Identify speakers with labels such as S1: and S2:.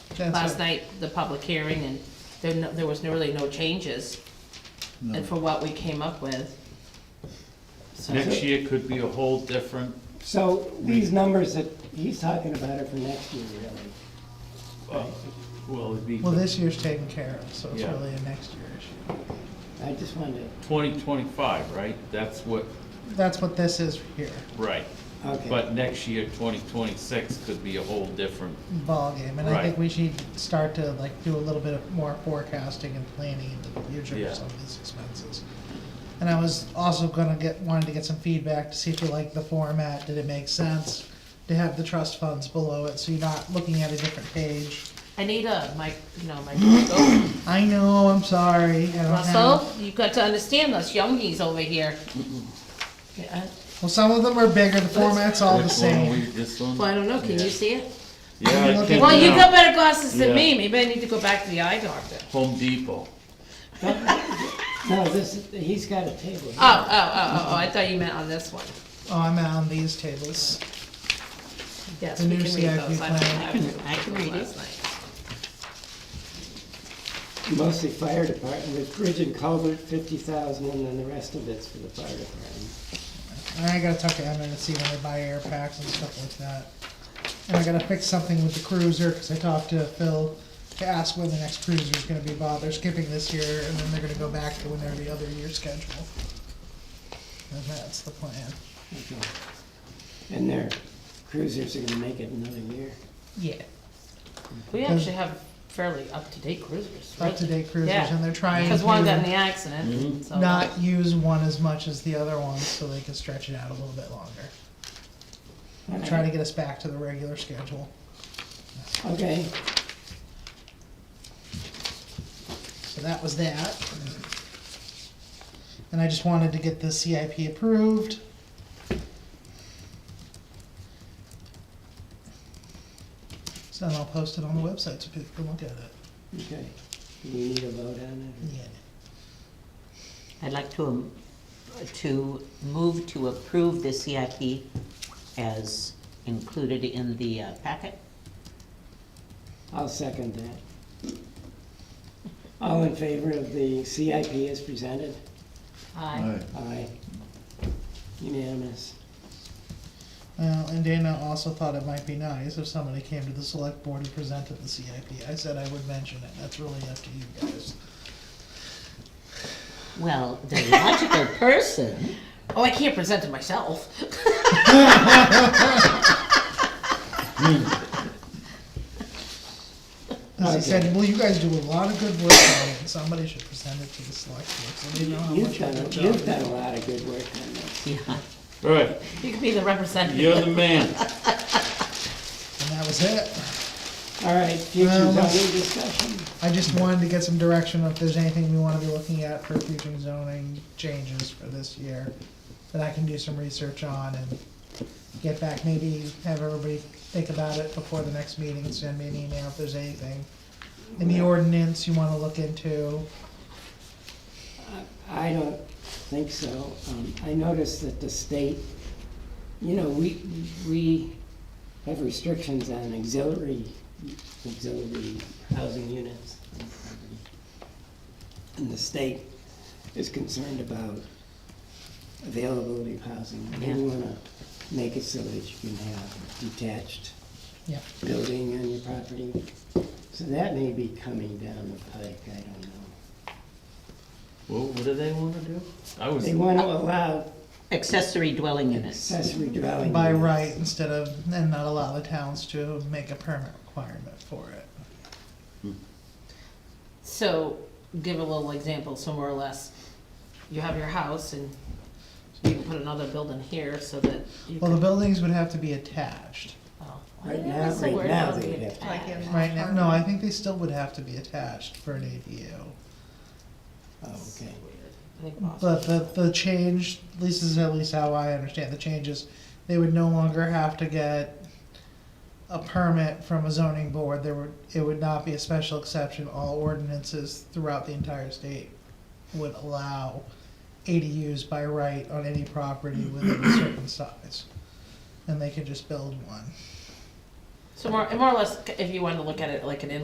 S1: That's
S2: last
S1: it.
S2: night, the public hearing, and there, no- there was no- really no changes, and for what we came up with. So-
S3: Next year could be a whole different,
S4: So these numbers that he's talking about are for next year, really.
S3: uh, well, it'd be
S1: Well, this year's taken care of, so it's
S3: Yeah.
S1: really a next year issue.
S4: I just wanted
S3: twenty twenty-five, right? That's what,
S1: That's what this is here,
S3: right.
S4: to, okay.
S3: But next year, twenty twenty-six could be a whole different,
S1: ballgame, and I think
S3: Right.
S1: we should start to like do a little bit of more forecasting and planning into the future
S3: Yeah.
S1: for some of these expenses. And I was also gonna get, wanted to get some feedback to see if you liked the format, did it make sense to have the trust funds below it, so you're not looking at a different page.
S2: I need a, mic you know, my,
S1: I know, I'm sorry, I don't have.
S2: Russell, you got to understand us youngies over here. Yeah,
S1: Well, some of them are bigger, the format's all the
S3: Which one
S1: same.
S3: we- this
S2: Well, I
S3: one?
S2: don't know, can you see it?
S3: Yeah, I
S1: Well,
S3: can
S2: Well, you
S3: now.
S2: got better glasses than me,
S3: Yeah.
S2: maybe I need to go back to the eye doctor.
S3: Home Depot.
S4: No, this, he's got a table.
S2: Oh, oh, oh, oh, oh, I thought you meant on this one.
S1: Oh, I'm on these tables.
S2: Yes,
S1: The
S2: we
S1: new
S2: can read
S1: CIP
S2: those, I don't
S1: plan.
S2: have to, I can read it.
S4: Mostly fire department, with bridge and culvert, fifty thousand, and then the rest of it's for the fire department.
S1: And I gotta talk to Emma and see when they buy air packs and stuff like that. And I gotta fix something with the cruiser, cause I talked to Phil to ask when the next cruiser is gonna be bought. They're skipping this year and then they're gonna go back to whenever the other year schedule. And that's the plan.
S4: Okay. And their cruisers are gonna make it another year.
S1: Yeah.
S2: We actually have fairly up-to-date cruisers, right?
S1: Up-to-date cruisers
S2: Yeah.
S1: and they're trying
S2: Because one got in
S1: to
S2: the
S4: Mm-hmm.
S2: accident, so.
S1: not use one as much as the other one so they can stretch it out a little bit longer.
S4: Okay.
S1: Try to get us back to the regular schedule.
S4: Okay,
S1: So that was that. And I just wanted to get the CIP approved. So then I'll post it on the website so people can look at it.
S4: okay. Do we need a vote on it?
S1: Yeah.
S5: I'd like to, um, to move to approve the CIP as included in the uh, packet.
S4: I'll second that. All in favor of the CIP as presented?
S2: Aye.
S4: Aye. Unanimous.
S1: Well, and Dana also thought it might be nice if somebody came to the select board and presented the CIP. I said I would mention it. That's really up to you guys.
S5: Well, the logical person,
S2: Oh, I can't present it myself.
S1: Cause he said, well, you guys do a lot of good work on it and somebody should present it to the select board. So they know how
S4: You've
S1: much
S4: done,
S1: of a
S4: a-
S1: good job.
S4: you've done a lot of good work on this.
S5: yeah.
S3: All right,
S2: You can be the representative.
S3: you're the man.
S1: And that was it.
S4: All right, future
S1: Um,
S4: zoning discussion.
S1: I just wanted to get some direction if there's anything we wanna be looking at for future zoning changes for this year that I can do some research on and get back, maybe have everybody think about it before the next meeting, send me an email if there's anything. Any ordinance you wanna look into,
S4: I don't think so. Um, I noticed that the state, you know, we, we have restrictions on auxiliary, auxiliary housing units. And the state is concerned about availability of housing. They
S5: Yeah.
S4: wanna make it so that you can have detached
S1: yeah.
S4: building on your property. So that may be coming down the pike, I don't know.
S3: Well, what do they wanna do? I was,
S4: They wanna allow
S5: Accessory dwelling units.
S4: accessory dwelling.
S1: By
S4: units.
S1: right instead of, and not allow the towns to make a permit requirement for it.
S2: So, give a little example, so more or less, you have your house and you can put another building here so that you
S1: Well, the
S2: can.
S1: buildings would have to be attached.
S2: oh,
S4: Right
S2: yeah,
S4: now-
S2: that's the
S4: right
S2: word,
S4: now
S2: I'll
S4: they
S2: get
S4: have to-
S2: that.
S1: Right now, no, I think they still would have to be attached for an ADU.
S4: Oh, okay. uh,
S2: I think Boston-
S1: But the, the change, this is at least how I understand the changes, they would no longer have to get a permit from a zoning board, there would, it would not be a special exception, all ordinances throughout the entire state would allow ADUs by right on any property within a certain size, and they could just build one.
S2: So more, and more or less, if you wanted to look at it like an in